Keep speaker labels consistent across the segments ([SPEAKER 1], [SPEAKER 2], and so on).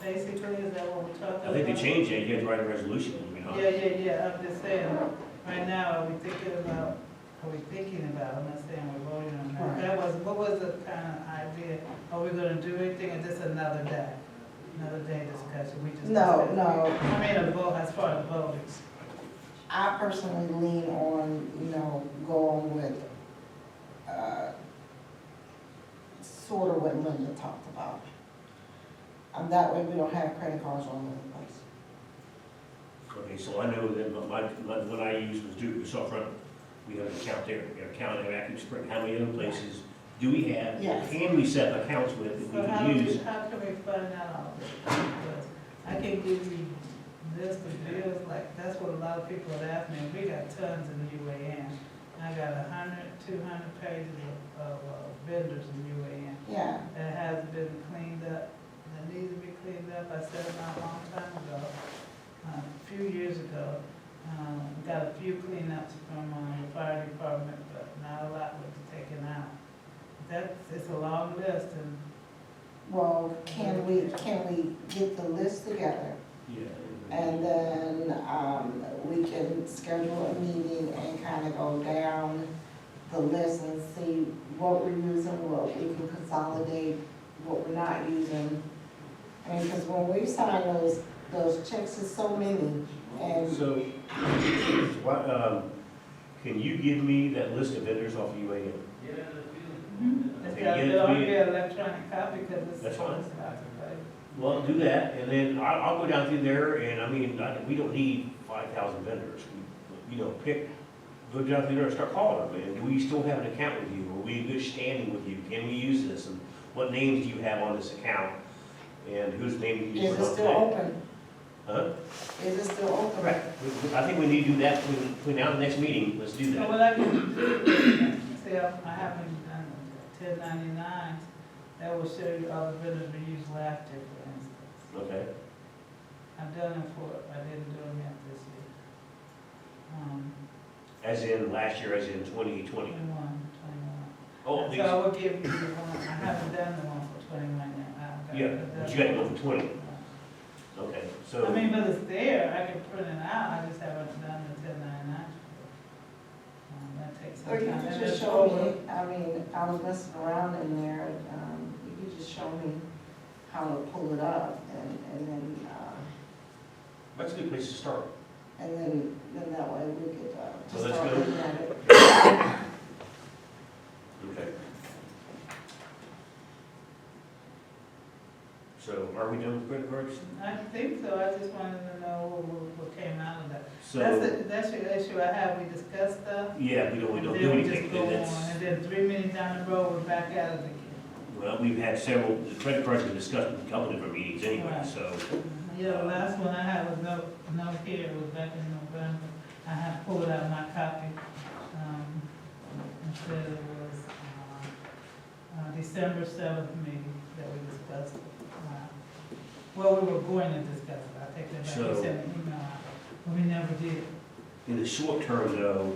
[SPEAKER 1] basically, is that what we're talking about?
[SPEAKER 2] I think they changed it, you had to write a resolution, you know?
[SPEAKER 1] Yeah, yeah, yeah, I'm just saying, right now, are we thinking about, are we thinking about, I'm not saying we're voting on that.
[SPEAKER 3] Right.
[SPEAKER 1] That was, what was the kind of idea? Are we gonna do anything or just another day? Another day discussion, we just.
[SPEAKER 3] No, no,
[SPEAKER 1] I mean, a vote, as far as voting.
[SPEAKER 3] I personally lean on, you know, going with, uh, sort of what Linda talked about. And that way we don't have credit cards all over the place.
[SPEAKER 2] Okay, so I know that my, my, what I used was Duke, was off front, we have an account there, we have an account in Active Spring, how many other places do we have?
[SPEAKER 3] Yes.
[SPEAKER 2] Can we set up accounts with that
[SPEAKER 1] So
[SPEAKER 2] we
[SPEAKER 1] how
[SPEAKER 2] can
[SPEAKER 1] do,
[SPEAKER 2] use?
[SPEAKER 1] how can we find out all this? Because I can give you this, the bills, like, that's what a lot of people have asked me, we got tons in UAN. I got a hundred, two hundred pages of, of uh, vendors in UAN
[SPEAKER 3] Yeah,
[SPEAKER 1] that has been cleaned up, that needs to be cleaned up. I said it not a long time ago, uh, a few years ago. Um, got a few cleanups from, um, the fire department, but not a lot was taken out. That's, it's a long list and
[SPEAKER 3] well, can we, can we get the list together?
[SPEAKER 2] Yeah.
[SPEAKER 3] And then, um, we can schedule a meeting and kind of go down the list and see what we're using, what we can consolidate, what we're not using. I mean, because when we sign those, those checks, there's so many, and,
[SPEAKER 2] So, why, um, can you give me that list of vendors off of UAN?
[SPEAKER 1] Mm-hmm. it's
[SPEAKER 2] Okay,
[SPEAKER 1] got
[SPEAKER 2] yeah,
[SPEAKER 1] to be on
[SPEAKER 2] we-
[SPEAKER 1] the electronic copy because it's.
[SPEAKER 2] That's fine.
[SPEAKER 1] it's not the right-
[SPEAKER 2] Well, do that, and then I, I'll go down through there, and I mean, I, we don't need five thousand vendors. We- You know, pick, go down through there and start calling them, man, do we still have an account with you, are we in good standing with you, can we use this, and what names do you have on this account? And whose name do you?
[SPEAKER 3] is
[SPEAKER 2] put
[SPEAKER 3] it
[SPEAKER 2] on
[SPEAKER 3] still
[SPEAKER 2] today?
[SPEAKER 3] open?
[SPEAKER 2] Huh?
[SPEAKER 3] Is it still open?
[SPEAKER 2] Correct, We- we- I think we need to do that between, between now and the next meeting, let's do
[SPEAKER 1] So
[SPEAKER 2] that.
[SPEAKER 1] what I can do is, see, I I have a ten ninety-nine that will show you all the vendors we used last year, for instance.
[SPEAKER 2] Okay,
[SPEAKER 1] I've done it for, I didn't do them yet this year. Um,
[SPEAKER 2] as in last year, as in twenty twenty.
[SPEAKER 1] twenty-one, twenty-one.
[SPEAKER 2] Oh, these,
[SPEAKER 1] So I will give you the one, I haven't done the one for twenty-one yet. I've got-
[SPEAKER 2] yeah, but you gotta go for twenty,
[SPEAKER 1] I
[SPEAKER 2] okay, so.
[SPEAKER 1] mean, but it's there, I can print it out, I just haven't done the ten ninety-nine. Um, that takes some
[SPEAKER 3] Or you
[SPEAKER 1] time.
[SPEAKER 3] could
[SPEAKER 1] And
[SPEAKER 3] just
[SPEAKER 1] it's
[SPEAKER 3] show
[SPEAKER 1] over.
[SPEAKER 3] me, I mean, I was messing around in there, um, you could just show me how to pull it up, and, and then, uh,
[SPEAKER 2] That's a good place to start.
[SPEAKER 3] And then, then that way we could, uh,
[SPEAKER 2] So
[SPEAKER 3] just
[SPEAKER 2] that's
[SPEAKER 3] start
[SPEAKER 2] good.
[SPEAKER 3] looking at it.
[SPEAKER 2] Okay. So are we done with credit cards?
[SPEAKER 1] I think so, I just wanted to know what, what- what came out of that. That's,
[SPEAKER 2] So,
[SPEAKER 1] the- that's the issue I have, we discussed stuff.
[SPEAKER 2] yeah, we don't, we
[SPEAKER 1] and
[SPEAKER 2] don't
[SPEAKER 1] then
[SPEAKER 2] do
[SPEAKER 1] we just
[SPEAKER 2] anything,
[SPEAKER 1] go
[SPEAKER 2] and
[SPEAKER 1] on,
[SPEAKER 2] that's,
[SPEAKER 1] And then three minutes down the road, we're back out of the game.
[SPEAKER 2] well, we've had several, the credit cards have been discussed in a couple different meetings anyway,
[SPEAKER 1] Right.
[SPEAKER 2] so.
[SPEAKER 1] Yeah, the last one I had was no, no here, it was back in November. I had pulled out my copy, um, and said it was, uh, uh, December seventh meeting that we discussed. uh, Well, we were going to discuss it, I take that back,
[SPEAKER 2] So-
[SPEAKER 1] you sent an email, out, but we never did.
[SPEAKER 2] In the short term though,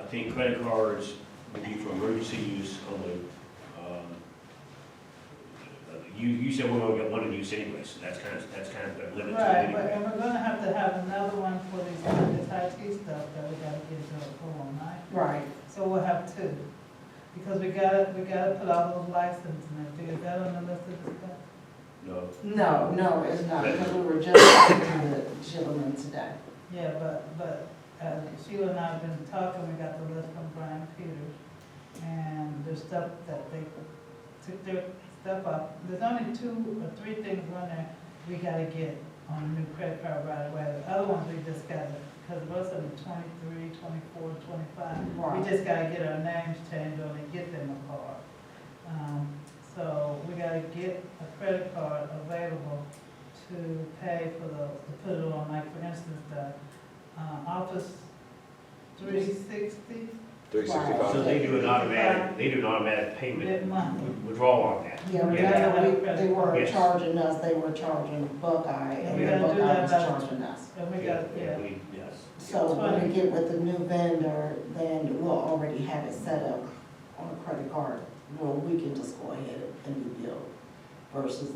[SPEAKER 2] I think credit cards would be for emergency use only. Um, You, you said we're gonna get one in use anyway, so that's kind of, that's kind of a limit to it
[SPEAKER 1] Right, but,
[SPEAKER 2] anyway.
[SPEAKER 1] and we're gonna have to have another one for these, this IT stuff that we gotta get to a full night.
[SPEAKER 3] Right,
[SPEAKER 1] So we'll have two, because we gotta, we gotta put all those licenses and everything, is that on the list of discuss?
[SPEAKER 2] No,
[SPEAKER 3] no, no, it's not, because we were just talking to the gentleman today.
[SPEAKER 1] Yeah, but, but uh, Sheila and I have been talking, we got the list from Brian Peters, and there's stuff that they took their stuff up. There's only two or three things on there we gotta get on a new credit card right away. The other ones we just gotta, because most of them are 23, 24, 25. We
[SPEAKER 3] Right.
[SPEAKER 1] just gotta get our names changed on and get them a card. Um, So we gotta get a credit card available to pay for those, to put it on, like, for instance, the uh, Office 360
[SPEAKER 4] Three
[SPEAKER 2] so
[SPEAKER 4] sixty-five.
[SPEAKER 2] they do an automatic, they do an automatic payment,
[SPEAKER 1] mid-month.
[SPEAKER 2] withdrawal on that.
[SPEAKER 3] Yeah, we
[SPEAKER 2] Yeah.
[SPEAKER 3] got, we, they were
[SPEAKER 2] Yes.
[SPEAKER 3] charging us, they were charging Buckeye, and
[SPEAKER 2] We
[SPEAKER 3] then
[SPEAKER 1] gotta do
[SPEAKER 3] Buckeye was
[SPEAKER 1] that, but-
[SPEAKER 3] charging us.
[SPEAKER 1] And we got, yeah,
[SPEAKER 2] we- Yes.
[SPEAKER 3] So when we get with the new vendor, then we'll already have it set up on a credit card, where we can just go ahead and do bill versus